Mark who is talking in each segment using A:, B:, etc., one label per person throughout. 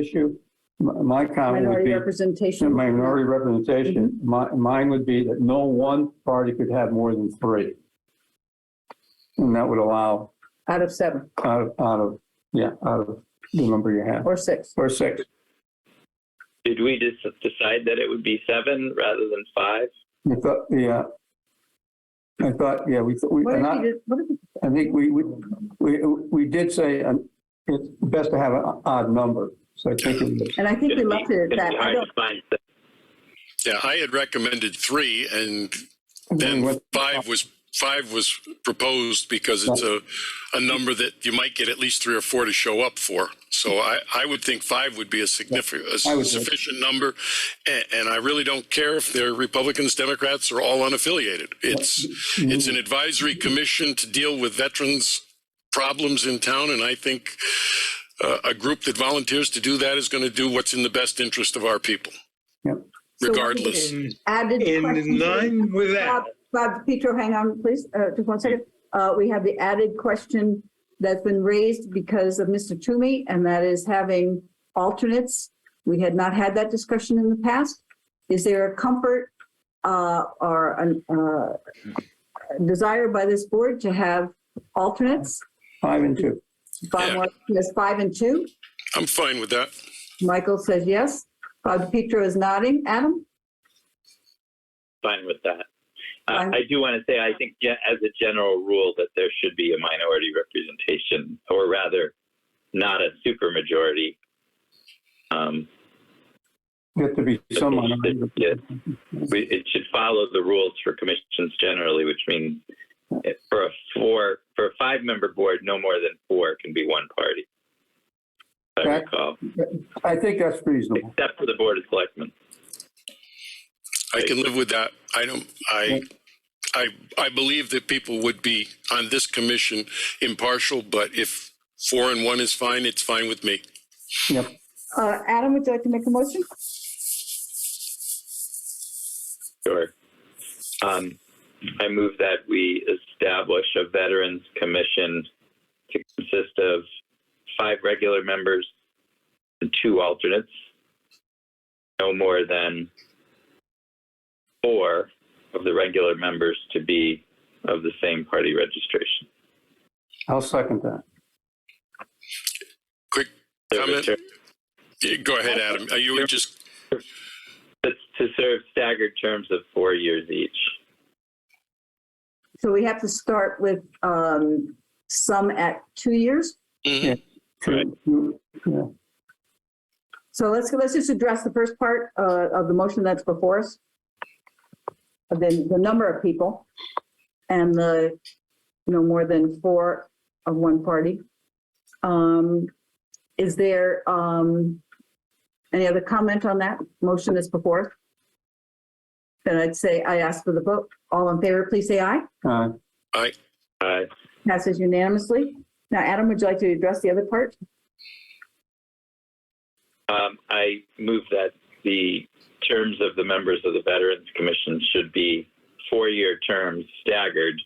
A: issue, my- my comment would
B: Minority
A: be,
B: representation. Mm-hmm.
A: minority representation, mi- mine would be that no one party could have more than three. And that would allow
B: Out of seven
A: out of, out of, yeah, out of the number you have,
B: or six.
A: or six.
C: Did we just decide that it would be seven rather than five?
A: I thought, yeah. I thought, yeah, we, thought we,
B: What
A: and
B: if
A: I-
B: we did, what if we
A: I think we, we, we, we did say, um, it's best to have an odd number, so I think it was.
B: And I think we
C: It'd be-
B: left it
C: it'd
B: at
C: be
B: that. I
C: hard
B: don't,
C: to find six.
D: Yeah, I had recommended three and then
A: What-
D: five was, five was proposed because it's a, a number that you might get at least three or four to show up for. So I, I would think five would be a significant, a
A: I would-
D: sufficient number. And, and I really don't care if they're Republicans, Democrats, or all unaffiliated. It's,
A: Mm-hmm.
D: it's an advisory commission to deal with veterans' problems in town. And I think uh, a group that volunteers to do that is going to do what's in the best interest of our people.
A: Yep.
B: So what
D: Regardless.
E: In,
B: added
E: in
B: questions.
E: line with
B: Bob,
E: that,
B: Bob Petro, hang on, please, uh, just one second. Uh, we have the added question that's been raised because of Mr. Toomey, and that is having alternates. We had not had that discussion in the past. Is there a comfort, uh, or an, uh, desire by this board to have alternates?
A: Five and two.
B: Bob
D: Yeah.
B: Martin says five and two.
D: I'm fine with that.
B: Michael says yes. Bob Petro is nodding. Adam?
C: fine with that. Uh,
B: Fine.
C: I do want to say, I think ge- as a general rule, that there should be a minority representation, or rather, not a supermajority. Um,
A: Get to be
C: but
A: some.
C: it should- yeah, we- It should follow the rules for commissions generally, which means if- for a four, for a five-member board, no more than four can be one party. If I
A: Right.
C: recall,
A: I think that's reasonable.
C: except for the Board of Selectmen.
D: I can live with that. I don't, I, I, I believe that people would be on this commission impartial, but if four and one is fine, it's fine with me.
A: Yep.
B: Uh, Adam, would you like to make a motion?
C: Sure. Um, I move that we establish a Veterans Commission to consist of five regular members and two alternates. No more than four of the regular members to be of the same party registration.
A: I'll second that.
D: Quick comment. Yeah, Go ahead, Adam. Are you just,
C: That's to serve staggered terms of four years each.
B: So we have to start with um, some at two years.
D: Mhm.
C: Right.
A: You- yeah.
B: So let's, let's just address the first part uh, of the motion that's before us. And Then the number of people and the, no more than four of one party. Um, Is there um, any other comment on that motion that's before? us? Then I'd say I ask for the vote. All in favor, please say aye.
A: Uh,
C: Uh,
B: Passes unanimously. Now, Adam, would you like to address the other part?
C: Um, I move that the terms of the members of the Veterans Commission should be four-year terms staggered.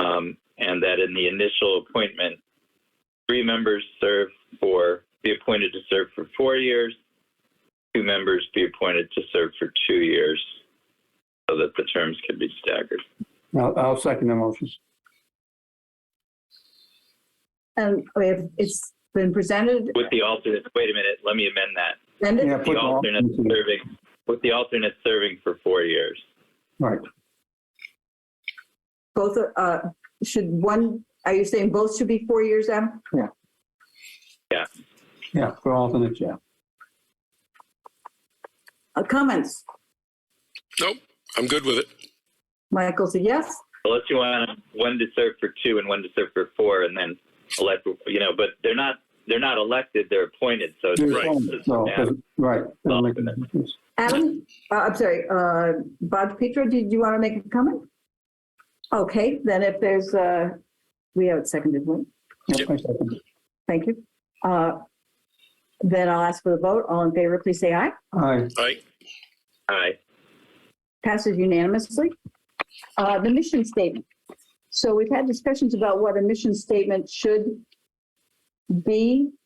C: Um, and that in the initial appointment, three members serve for, be appointed to serve for four years, two members be appointed to serve for two years, so that the terms can be staggered.
A: I'll, I'll second the motion.
B: And we have- Um, it's been presented.
C: With the alternate, wait a minute, let me amend that.
B: and
A: Yeah,
B: it-
A: put
C: The
A: the
C: alternate
A: alternates in.
C: serving, with the alternate serving for four years.
A: Right.
B: Both, uh, should one, are you saying both should be four years, Adam?
A: Yeah, for alternates, yeah.
B: Uh, Comments?
D: nope, I'm good with it.
B: Michael said yes.
C: unless you want one to serve for two and one to serve for four, and then elect, you know, but they're not they're not elected; they're appointed. So it's
A: There's
D: Right.
A: alternates, so,
C: Yeah.
A: Right. Doesn't make any difference.
B: Adam, uh, I'm sorry, uh, Bob Petro, did you want to make a comment? Okay, then if there's, uh, we have it seconded, right?
A: Yep, I second it.
B: Thank you. Uh, Then I'll ask for the vote. All in favor, please say aye.
A: Aye.
D: I,
C: aye.
B: passes unanimously. Uh, The mission statement. So we've had discussions about what a mission statement should be. Uh,